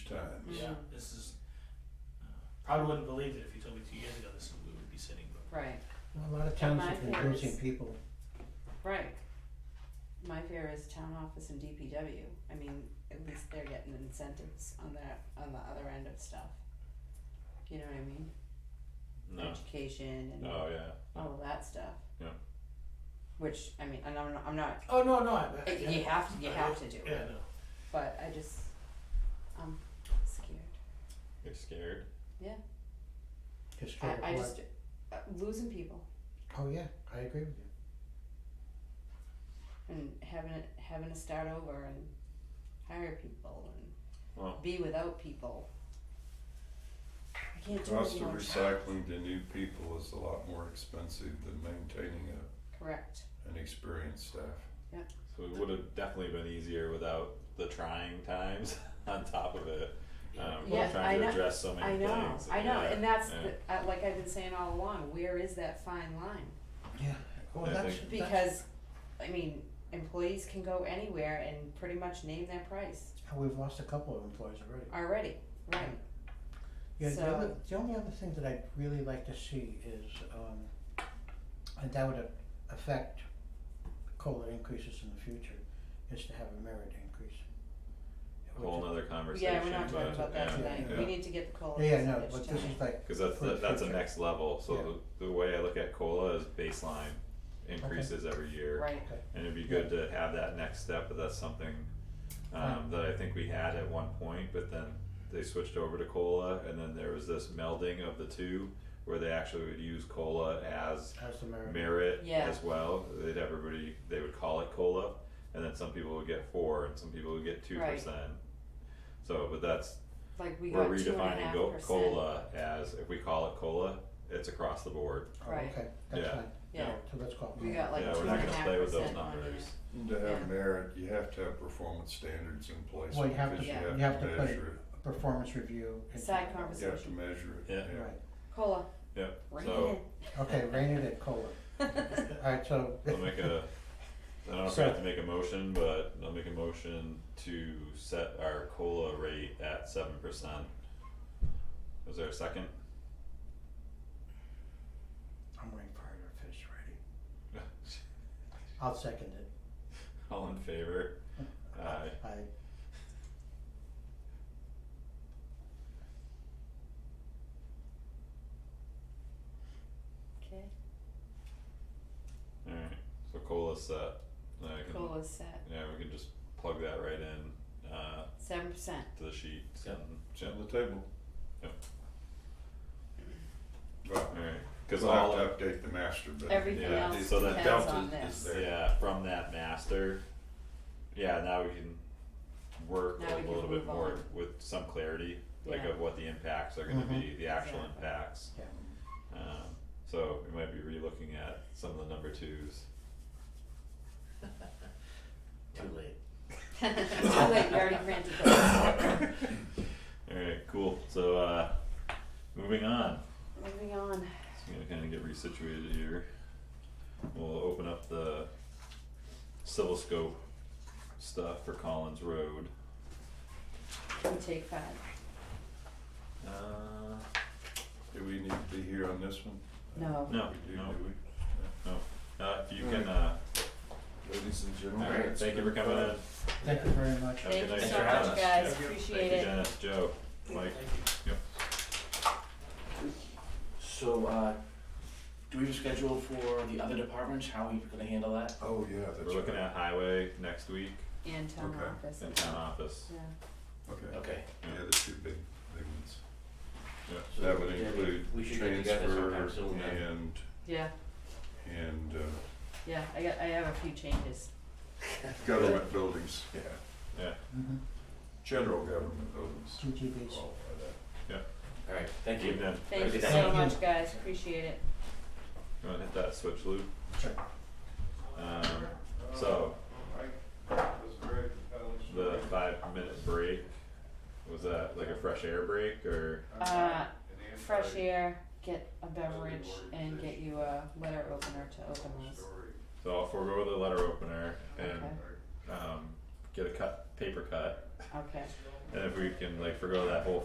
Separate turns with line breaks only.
Mm-hmm.
yeah, this is, uh, probably wouldn't believe it if you told me two years ago this is where we would be sitting, but
Right,
A lot of
But
towns
my
are
fear
confusing
is-
people.
right. My fear is town office and DPW, I mean, at least they're getting incentives on that, on the other end of stuff. You know what I mean?
No,
Education and
oh yeah,
all of that stuff.
Yeah.
Which, I mean, and I'm not, I'm not,
Oh, no, no, I, I-
it- you have to, you
I-
have to do
Yeah,
it,
no,
but I just, I'm scared.
you're scared.
Just straight up
I, I
what-
just, uh, losing people.
Oh, yeah, I agree with you.
and having it, having to start over and hire people and
Well,
be without people. I can't do
Cost of
it anymore.
recycling to new people is a lot more expensive than maintaining a,
Correct.
an experienced staff.
so it would have definitely been easier without the trying times on top of it. Um, we're
Yeah, I
trying to
know.
address so
I
many things.
know. I know,
yeah,
and that's
yeah.
the, uh, like I've been saying all along. Where is that fine line?
Yeah, well,
I
that's,
think-
that's
Because, I mean, employees can go anywhere and pretty much name their price
how we've lost a couple of employees already.
already, right?
Yeah, the
So-
other, the only other thing that I'd really like to see is, um, and that would a- affect COLA increases in the future, is to have a merit increase. Which
whole
is-
nother conversation.
Yeah, we're not talking
but,
about that
yeah.
tonight.
yeah.
We need to get the cola.
Yeah, yeah, no, but this is like,
Cause that's
For
the,
the
that's the
future.
next level, so the, the way I look at COLA is baseline increases every year.
right.
And it'd be good to have that next step, but that's something, um, that I think we had at one point, but then they switched over to COLA, and then there was this melding of the two, where they actually would use COLA as
how's the merit?
merit
Yeah.
as well, they'd everybody, they would call it COLA, and then some people would get four, and some people would get two
Right.
percent. So, but that's
Like we
we're
got two and a
redefining
half
go-
percent.
cola as if we call it cola, it's across the board.
Oh,
Right.
Okay, that's
Yeah.
fine.
Yeah.
So let's call it
We
merit.
got like
yeah,
two
we're
and a
not
half
gonna
percent
play with those
on it.
numbers.
And to
Yeah.
have merit, you have to have performance standards in place
Well, you have
because
to-
you
you
have
have to
to
put it-
measure
Performance review. and-
Side
it, you have to
conversation.
measure it,
Yeah.
yeah.
Right,
Cola.
Yep.
Bring
So
okay, rain it at COLA. Alright, so.
I'll make a. I don't know if
So-
we have to make a motion, but I'll make a motion to set our cola rate at seven percent. Was there a second?
I'm waiting for her to finish ready. I'll second it.
All in favor? Aye.
Aye.
Okay,
Alright, so cola's set. Now I can-
cola set,
Yeah, we can just plug that right in, uh,
seven percent.
to the sheet.
Yep. It's
Yeah.
on the table.
Yep.
But
Alright, cause
we'll have
all,
to update the master, but.
Everything
Yeah,
else
so that
depends
delta
on
is
this.
there.
Yeah, from that master. Yeah, now we can work
Now
a
we can
little bit
move
more
on.
with some clarity, like
Yeah. Mm-hmm.
of what the impacts are gonna be, the actual
Exactly.
impacts.
Yeah.
Um, so we might be relooking at some of the number twos.
too late.
It's too late, you already granted those.
Alright, cool, so uh, moving on,
Moving on,
so I'm gonna kinda get resituated here. We'll open up the civil scope stuff for Collins Road.
we take five.
Uh,
Do we need to be here on this one?
No.
no,
We do,
no,
do we?
Uh, if you can, uh,
Ladies and gentlemen.
alright,
it's
thank you for
been
coming
fun.
in.
Thank you very much.
Have a
Thank you
good night.
so
Thanks for having
much,
us.
guys,
Yeah.
appreciate
Thank you,
it.
Dennis, Joe, Mike,
Thank you.
So, uh, do we have a schedule for the other departments, how are we gonna handle that?
Oh, yeah, that's right.
we're looking at highway next week
And town
Okay.
office.
in town office.
Yeah,
Okay.
Okay.
Yeah, the two big, big ones.
so
That would
yeah, we-
include
We should get together sometime
transfer
soon then.
and,
yeah,
and, uh,
yeah, I got, I have a few changes.
government buildings, yeah,
Mm-hmm.
general government buildings.
GGBs.
Qualify that.
Alright, thank you.
Keep them.
Thank you
Thank
so
you.
much, guys, appreciate it.
You wanna hit that switch loop?
Sure.
Um, so, the five minute break, was that like a fresh air break or?
Uh, fresh air, get a beverage and get you a letter opener to open those.
So I'll forego the letter opener and,
Okay.
um, get a cut, paper cut.
Okay,
And if we can like forego that whole